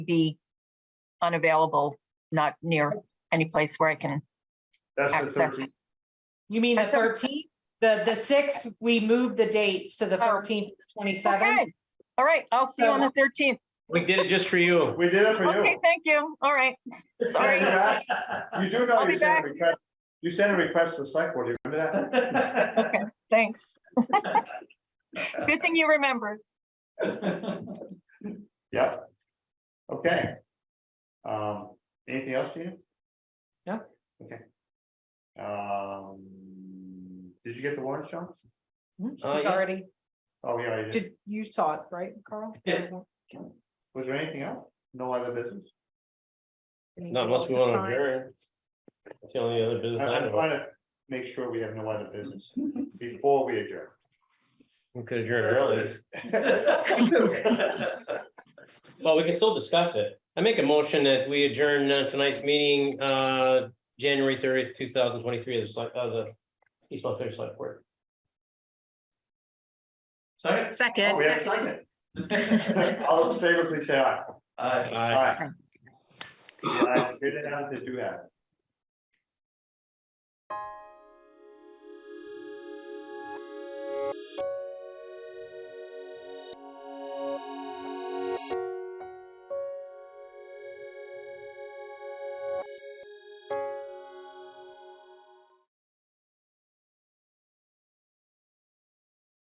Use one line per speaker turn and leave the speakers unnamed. be unavailable, not near any place where I can
That's the
access.
thirteenth.
You mean the
That's okay.
thirteenth? The, the sixth, we moved the dates to the
Oh.
thirteenth, twenty-seventh.
Okay, all right, I'll see you on the thirteenth.
We did it just for you.
We did it for
Okay,
you.
thank you, all right, sorry.
You're back. You do know
I'll be
you sent
back.
a request, you sent a request for select board, you remember that?
Okay, thanks. Good thing you remembered.
Yep. Okay. Um, anything else, Gina?
No.
Okay. Um, did you get the warrant, Sean?
Uh,
It's
yes.
Hmm, already,
Oh, yeah, I did.
did, you saw it, right, Carl?
Yes.
Was there anything else? No other business?
Not unless we want to adjourn. That's the only other
I-
business. I
I'm
know.
trying to make sure we have no other business before we adjourn.
We could adjourn early. Well, we can still discuss it. I make a motion that we adjourn uh, tonight's meeting, uh, January thirtieth, two thousand twenty-three, of the, select- of the East Montpelier Select Board.
Second?
Oh,
Second.
We have a second. All those in favor, please say aye.
Aye.
Aye.
Aye. Yeah, I figured out to do that.